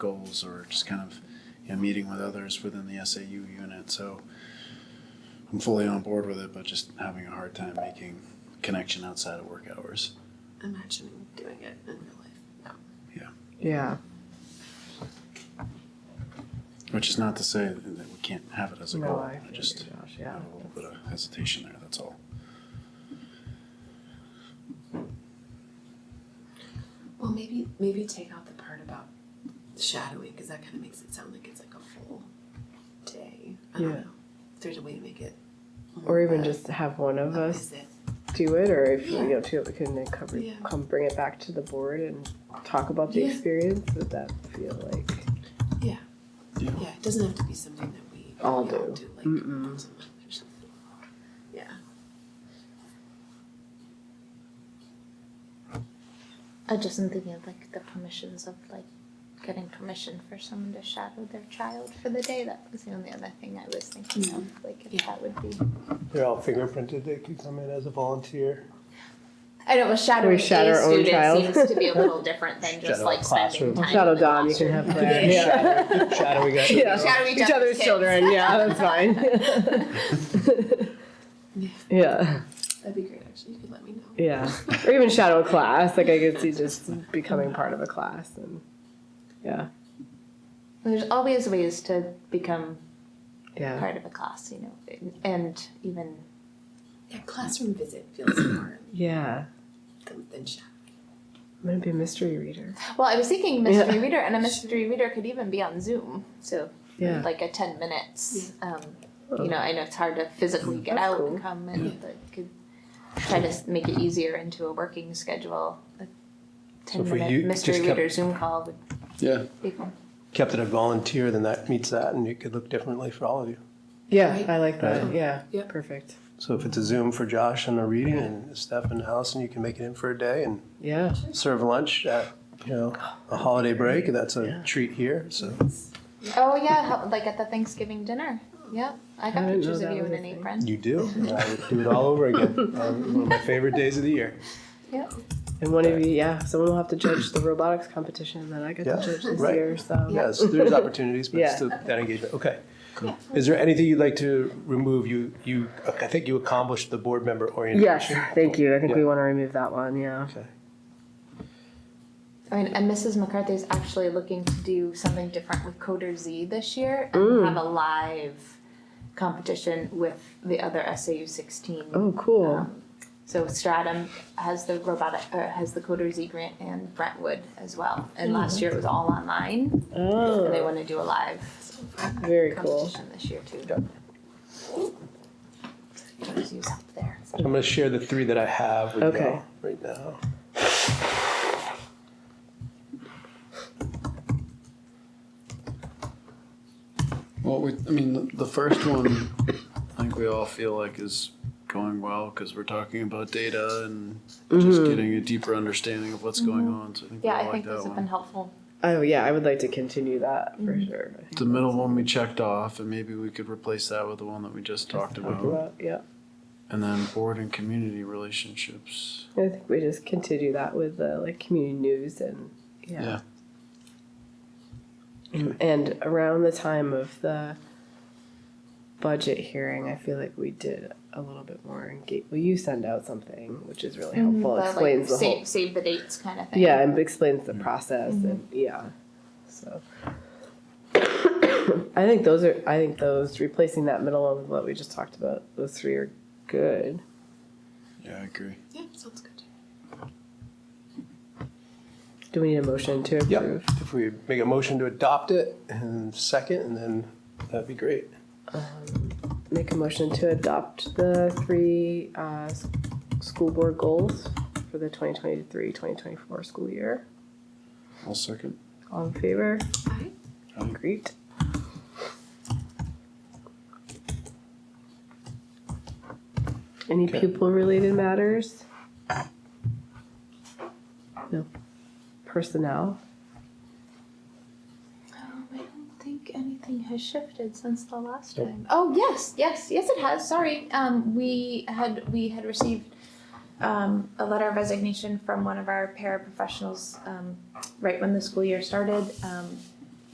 goals or just kind of you know, meeting with others within the SAU unit. So I'm fully on board with it, but just having a hard time making connection outside of work hours. imagining doing it in real life. No. Yeah. Which is not to say that we can't have it as a No, goal. I I feel just you, Josh. have Yeah. a little bit of hesitation there. That's all. Well, maybe maybe take out the part about shadowing because that kind of makes it sound like it's like a full day. I don't Yeah. know. If there's a way to make it. Or even more, just have one uh, of what us is it? do it, or if Yeah. you know, two of us can then cover, Yeah. come bring it back to the board and talk about the Yeah. experience. Would that feel like? Yeah. Yeah. Yeah. It doesn't have to be something that we All we do. like Mm-mm. once a month or something. Yeah. I just am thinking of like the permissions of like getting permission for someone to shadow their child for the day. That was the only other thing I was thinking Mm-hmm. of. Like if Yeah. that would be. They're all fingerprinted. They could come in as a volunteer. I know a shadowing We shadow a our own student child. seems to be a little different than just Shadow like a spending classroom. time. Shadow in the Dom, you can have classroom. Claire. Shadow, shadowy guy. Yeah, Shadow each each other's other's kids. children. Yeah, that's fine. Yeah. yeah, That'd be great. Actually, you could let me know. yeah, or even shadow a class. Like I could see just becoming part of a class, and yeah, There's always ways to become yeah. part of a class, you know, and even Yeah. Classroom visit feels more Yeah, than, than shadowing. I'm gonna be a mystery reader. Well, I was thinking mystery Yeah. reader, and a mystery reader could even be on Zoom, so Yeah. like a ten minutes. Um, Oh. You know, I know it's hard to physically get That's out cool. and come, and but could try to s- make it easier into a working schedule. A ten if we minute u- mystery just kept- reader Zoom call would Yeah. be cool. Kept it a volunteer, then that meets that, and it could look differently for all of you. Yeah, Right. I like that. Yeah, Yep. perfect. So if it's a Zoom for Josh and a reading and Steph and Allison, you can make it in for a day and Yeah. serve lunch at you know a holiday break. That's a Yeah. treat here. So Oh yeah, how- like at the Thanksgiving dinner. Yeah, I got I didn't know pictures of that you was a in an thing. apron. you do. And I would do it all over again. Um, one of my favorite days of the year. Yeah, And one of you, yeah, someone will have to judge the robotics competition that I get Yeah, to judge this right. year. So Yes, there's opportunities, but Yeah. still that engagement. Okay. Is there anything you'd like to remove? You you I think you accomplished the board member Yes, orientation. thank you. I think we Yeah. want to remove that one. Yeah. Okay. I mean, and Mrs. McCarthy is actually looking to do something different with Coder Z this year and Mm. have a live competition with the other SAU 16. Oh, cool. Um, so Stratum has the robotic or has the Coder Z grant and Brentwood as well. And last year it was all online, and they Mm. oh, want to do a live very cool. competition this year too. Coder Z's up there. I'm going to share the three that I have with Okay. y'all right now. Well, we, I mean, the- the first one, I think we all feel like is going well because we're talking about data and Mm-hmm. just getting a deeper understanding of what's going on. So I think Yeah, we I like think that those one. have been helpful. Oh yeah, I would like to continue that for sure. I think The middle one we checked off, and maybe we could replace that with the one that we just talked Uh-huh. talk about. about- Yeah, And then board and community relationships. I think we just continue that with the like community news and yeah. And- And around the time of the budget hearing, I feel like we did a little bit more engage. Well, you send out something, which is really helpful. The, like, Explains the save, whole save the dates kind of thing. yeah and explains the process and yeah so i think those are i think those replacing that middle one with what we just talked about those three are good Yeah, I agree. Yeah, sounds good. do we need a motion to Yep. approve If we make a motion to adopt it and second, and then that'd be great. make a motion to adopt the three uh, s- school board goals for the 2023-2024 school year I'll second. all in favor Aye. Great. Any Okay. pupil-related matters? No. Personnel? Um, I don't think anything has shifted since the last time. Oh yes, yes, yes, it has. Sorry, um, we had we had received um, a letter of resignation from one of our paraprofessionals um, right when the school year started. Um,